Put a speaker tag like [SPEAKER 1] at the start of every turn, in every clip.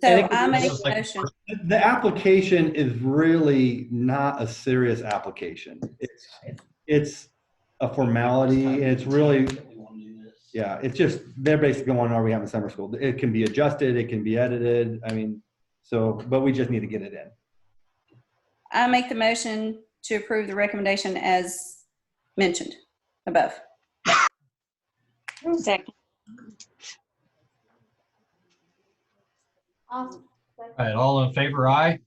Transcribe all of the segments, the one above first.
[SPEAKER 1] So
[SPEAKER 2] think
[SPEAKER 1] I
[SPEAKER 2] it's
[SPEAKER 1] make
[SPEAKER 2] just
[SPEAKER 1] a
[SPEAKER 2] like-
[SPEAKER 1] motion.
[SPEAKER 3] The application is really not a serious application. It's, it's a formality, and it's really, yeah, it's just, they're basically going, are we having summer school? It can be adjusted, it can be edited, I mean, so, but we just need to get it in.
[SPEAKER 1] I make the motion to approve the recommendation as mentioned above.
[SPEAKER 4] Second.
[SPEAKER 2] All right, all in favor, aye?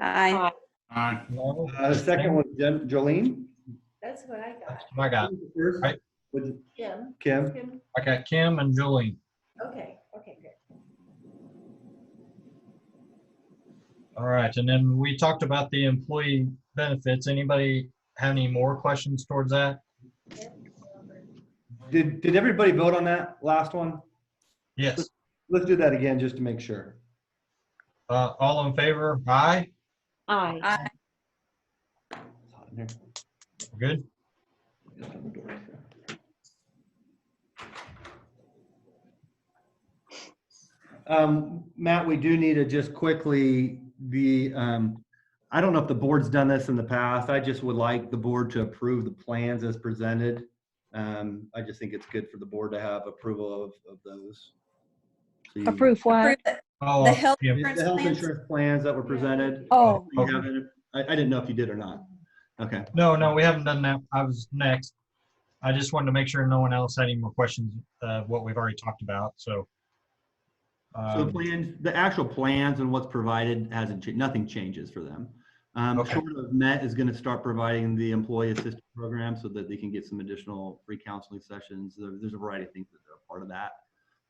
[SPEAKER 1] I,
[SPEAKER 5] Aye.
[SPEAKER 2] No?
[SPEAKER 3] Uh, the second one, Jen- Jolene?
[SPEAKER 6] That's what I got.
[SPEAKER 2] I got,
[SPEAKER 3] First,
[SPEAKER 2] Right.
[SPEAKER 3] with
[SPEAKER 6] Jim?
[SPEAKER 3] Kim?
[SPEAKER 6] Jim?
[SPEAKER 2] I got Kim and Jolene.
[SPEAKER 6] Okay, okay, good.
[SPEAKER 2] All right, and then we talked about the employee benefits. Anybody have any more questions towards that?
[SPEAKER 3] Did, did everybody vote on that last one?
[SPEAKER 2] Yes,
[SPEAKER 3] Let's do that again, just to make sure.
[SPEAKER 2] uh, all in favor, aye?
[SPEAKER 4] Aye.
[SPEAKER 1] I,
[SPEAKER 3] It's hot in here.
[SPEAKER 2] Good?
[SPEAKER 3] Just open the door right there. Um, Matt, we do need to just quickly, the, um, I don't know if the board's done this in the past. I just would like the board to approve the plans as presented. Um, I just think it's good for the board to have approval of, of those. So you-
[SPEAKER 4] Approve what?
[SPEAKER 1] approve it.
[SPEAKER 2] Oh,
[SPEAKER 1] The health
[SPEAKER 2] yeah.
[SPEAKER 3] The health insurance plans that were presented.
[SPEAKER 4] Oh,
[SPEAKER 3] You haven't- I, I didn't know if you did or not. Okay.
[SPEAKER 2] No, no, we haven't done that. I was next. I just wanted to make sure no one else had any more questions of what we've already talked about, so.
[SPEAKER 3] So the
[SPEAKER 2] um,
[SPEAKER 3] plans, the actual plans and what's provided hasn't changed, nothing changes for them. Um,
[SPEAKER 2] Okay.
[SPEAKER 3] short of Met is gonna start providing the employee assistance program so that they can get some additional free counseling sessions. There- There's a variety of things that are part of that.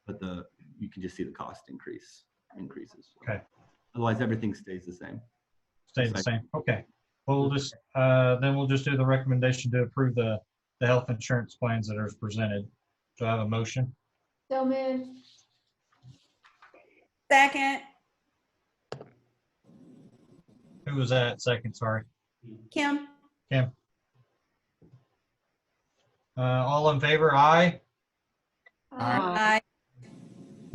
[SPEAKER 3] But the, you can just see the cost increase, increases.
[SPEAKER 2] Okay.
[SPEAKER 3] Otherwise, everything stays the same.
[SPEAKER 2] Stay the same, okay. We'll just, uh, then we'll just do the recommendation to approve the, the health insurance plans that are presented. Do I have a motion?
[SPEAKER 6] So man,
[SPEAKER 1] Second,
[SPEAKER 2] Who was that second, sorry?
[SPEAKER 1] Kim,
[SPEAKER 2] Uh, all in favor, aye?
[SPEAKER 5] Aye.
[SPEAKER 6] Uh,
[SPEAKER 1] I,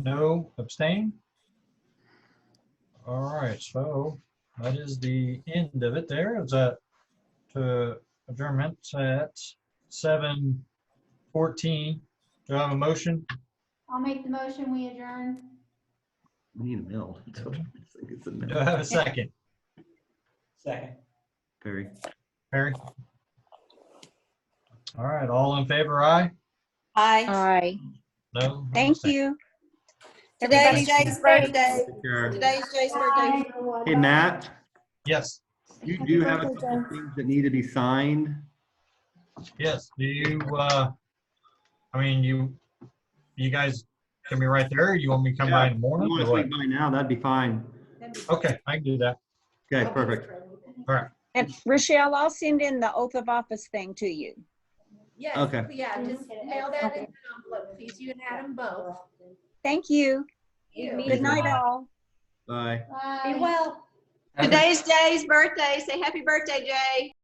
[SPEAKER 2] No, abstain? All right, so that is the end of it there. It's a, to adjournment at seven fourteen. Do I have a motion?
[SPEAKER 6] I'll make the motion, we adjourn.
[SPEAKER 3] We need a mill. That's what I was thinking, It's a
[SPEAKER 2] Do I
[SPEAKER 3] mill.
[SPEAKER 2] have a second?
[SPEAKER 5] Second.
[SPEAKER 3] Perry.
[SPEAKER 2] Perry? All right, all in favor, aye?
[SPEAKER 1] I.
[SPEAKER 4] Aye.
[SPEAKER 2] No?
[SPEAKER 4] Thank you.
[SPEAKER 1] Today's
[SPEAKER 4] Everybody,
[SPEAKER 1] Jay's birthday.
[SPEAKER 3] Sure.
[SPEAKER 1] Today's Jay's birthday.
[SPEAKER 3] Hey, Matt,
[SPEAKER 2] Yes,
[SPEAKER 3] you
[SPEAKER 6] Happy
[SPEAKER 3] do have a
[SPEAKER 6] birthday,
[SPEAKER 3] couple things that need to be signed.
[SPEAKER 2] yes. Do you, uh, I mean, you, you guys can be right there. or You want me to come by in the
[SPEAKER 3] If you
[SPEAKER 2] morning?
[SPEAKER 3] wanna
[SPEAKER 2] or what?
[SPEAKER 3] swing by now, that'd be fine.
[SPEAKER 2] Okay, I can do that.
[SPEAKER 3] Okay, perfect.
[SPEAKER 4] and Rochelle, I'll send in the oath of office thing to you.
[SPEAKER 6] Yes,
[SPEAKER 3] Okay.
[SPEAKER 6] yeah, just mail that in an envelope, please, you and Adam both.
[SPEAKER 4] Thank you.
[SPEAKER 6] You.
[SPEAKER 4] Good night, all.
[SPEAKER 3] Bye.
[SPEAKER 6] Be well.
[SPEAKER 1] Today's Jay's birthday. Say happy birthday, Jay.